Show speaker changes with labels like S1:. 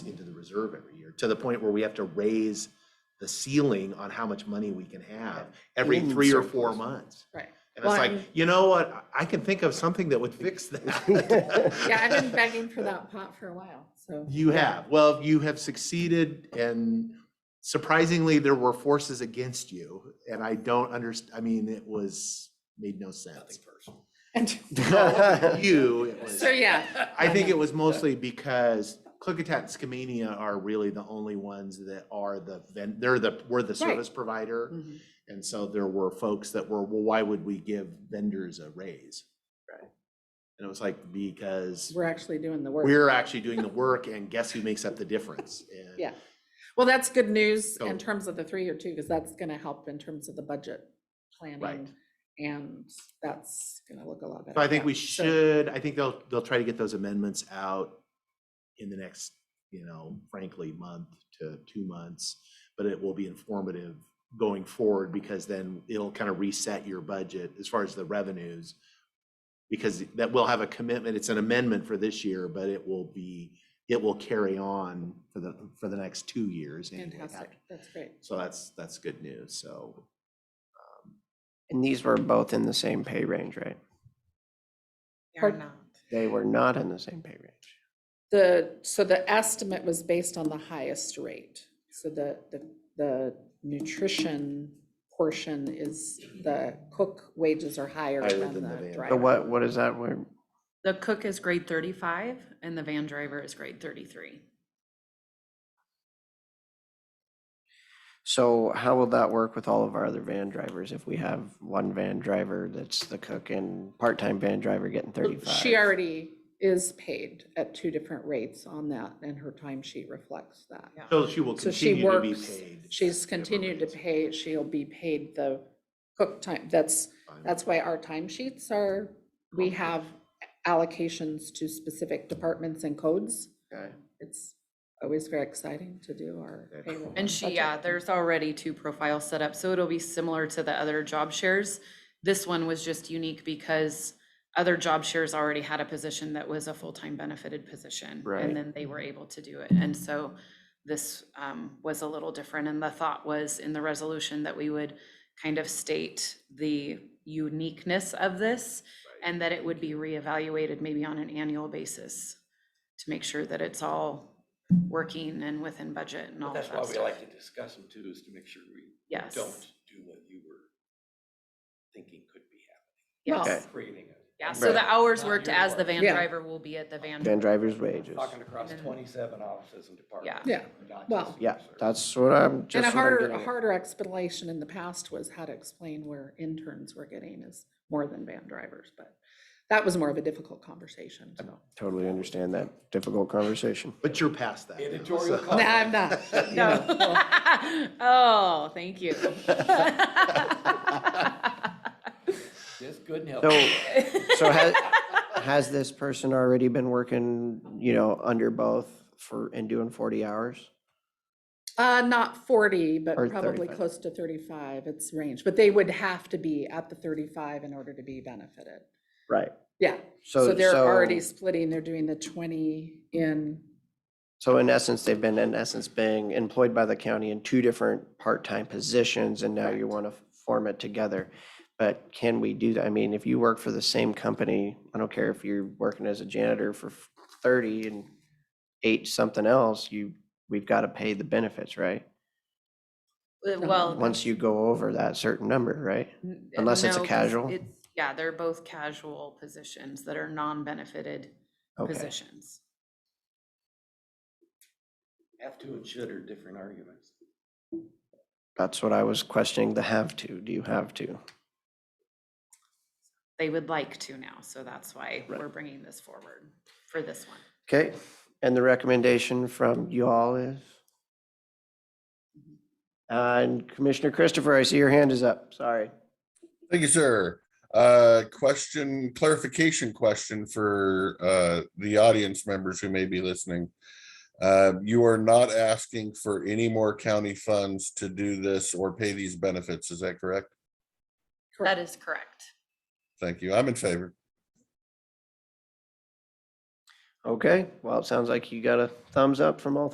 S1: reserve every year, to the point where we have to raise the ceiling on how much money we can have every
S2: In
S1: three or four
S2: surplus.
S1: months.
S3: Right.
S1: And it's
S3: Well,
S1: like,
S3: and-
S1: you know what, I- I can think of something that would fix that.
S3: Yeah, I've been begging for that pot for a while, so.
S1: You have, well, you have succeeded and surprisingly, there were forces against you. And I don't underst, I mean, it was, made no sense. No, You, it was.
S3: So, yeah.
S1: I think it was mostly because Clickitat and Skamania are really the only ones that are the, ven- they're the, we're the service provider.
S3: Mhm.
S1: And so there were folks that were, well, why would we give vendors a raise?
S3: Right.
S1: And it was like, because
S3: We're actually doing the work.
S1: we're actually doing the work and guess who makes up the difference? And
S3: Yeah. Well, that's good news
S1: So-
S3: in terms of the three-year too, because that's gonna help in terms of the budget planning. And that's gonna look a lot better.
S1: So I think
S3: Uh, yeah.
S1: we
S3: So-
S1: should, I think they'll, they'll try to get those amendments out in the next, you know, frankly, month to two months. But it will be informative going forward because then it'll kind of reset your budget as far as the revenues. Because that will have a commitment, it's an amendment for this year, but it will be, it will carry on for the, for the next two years. anyway.
S3: Fantastic, that's great.
S1: So that's, that's good news, so.
S2: And these were both in the same pay range, right?
S3: Pardon?
S2: They were not in the same pay range.
S3: The, so the estimate was based on the highest rate. So the, the, the nutrition portion is, the cook wages are higher
S1: Higher
S3: than
S1: than the
S3: the
S1: van.
S2: So
S3: driver.
S2: what, what is that? We're-
S4: The cook is grade thirty-five and the van driver is grade thirty-three.
S2: So how will that work with all of our other van drivers? If we have one van driver that's the cook and part-time van driver getting thirty-five?
S3: She already is paid at two different rates on that, and her timesheet reflects that.
S1: So she will
S3: So she
S1: continue to be
S3: works,
S1: paid.
S3: she's continued to
S1: rates.
S3: pay, she'll be paid the cook time, that's,
S1: Fine.
S3: that's why our timesheets are, we have allocations to specific departments and codes.
S2: Okay.
S3: It's always very exciting to do our
S1: Yeah.
S3: payroll.
S4: And she,
S3: budget.
S4: yeah, there's already two profiles set up, so it'll be similar to the other job shares. This one was just unique because other job shares already had a position that was a full-time benefited position.
S2: Right.
S4: And then they were able to do it. And so this um, was a little different. And the thought was in the resolution that we would kind of state the uniqueness of this and that it would be reevaluated maybe on an annual basis to make sure that it's all working and within budget and all
S5: But
S4: of that
S5: that's
S4: stuff.
S5: why we like to discuss them too, is to make sure we
S4: Yes.
S5: don't do what you were thinking could be
S4: Yes,
S2: Okay.
S5: happening, creating a.
S4: yeah, so the hours
S5: Not
S4: worked
S5: your
S4: as the
S5: work.
S4: van
S3: Yeah.
S4: driver will be at the van.
S2: Van driver's wages.
S5: Talking across
S4: And-
S5: twenty-seven offices and departments.
S3: Yeah.
S5: not just
S3: Well-
S2: Yeah,
S5: food service.
S2: that's what I'm just.
S3: And
S2: what
S3: a
S2: I'm
S3: harder,
S2: getting
S3: a
S2: at.
S3: harder explanation in the past was how to explain where interns were getting is more than van drivers, but that was more of a difficult conversation, so.
S2: Totally understand that difficult conversation.
S1: But you're past that. now,
S5: Editorial
S1: so-
S5: Oh.
S3: No, I'm not. you know, well,
S4: Oh, thank you.
S5: Just good and
S3: Oh.
S2: So,
S5: healthy.
S2: so has, has this person already been working, you know, under both for, and doing forty hours?
S3: Uh, not forty, but
S2: Or
S3: probably
S2: 35.
S3: close to thirty-five, it's range, but they would have to be at the thirty-five in order to be benefited.
S2: Right.
S3: Yeah,
S2: So,
S3: so they're already
S2: so,
S3: splitting, they're doing the twenty in,
S2: so in essence, they've been, in essence, being employed by the county in two different part-time positions, and now you want to form it together. But can we do that? I mean, if you work for the same company, I don't care if you're working as a janitor for thirty and eight something else, you, we've got to pay the benefits, right?
S4: Well.
S2: Once you go over that certain number, right?
S4: n-
S2: Unless it's a
S4: no, 'cause
S2: casual?
S4: it's- Yeah, they're both casual positions that are non-benefited
S2: Okay.
S4: positions.
S5: Have to and should are different arguments.
S2: That's what I was questioning, the have to. Do you have to?
S4: They would like to now, so that's why
S2: Right.
S4: we're bringing this forward for this one.
S2: Okay, and the recommendation from you all is? Uh, And Commissioner Christopher, I see your hand is up. Sorry.
S6: Thank you, sir. Uh, question, clarification question for, uh, the audience members who may be listening. Uh, you are not asking for any more county funds to do this or pay these benefits, is that correct?
S4: That is correct.
S6: Thank you. I'm in favor.
S2: Okay, well, it sounds like you got a thumbs up from all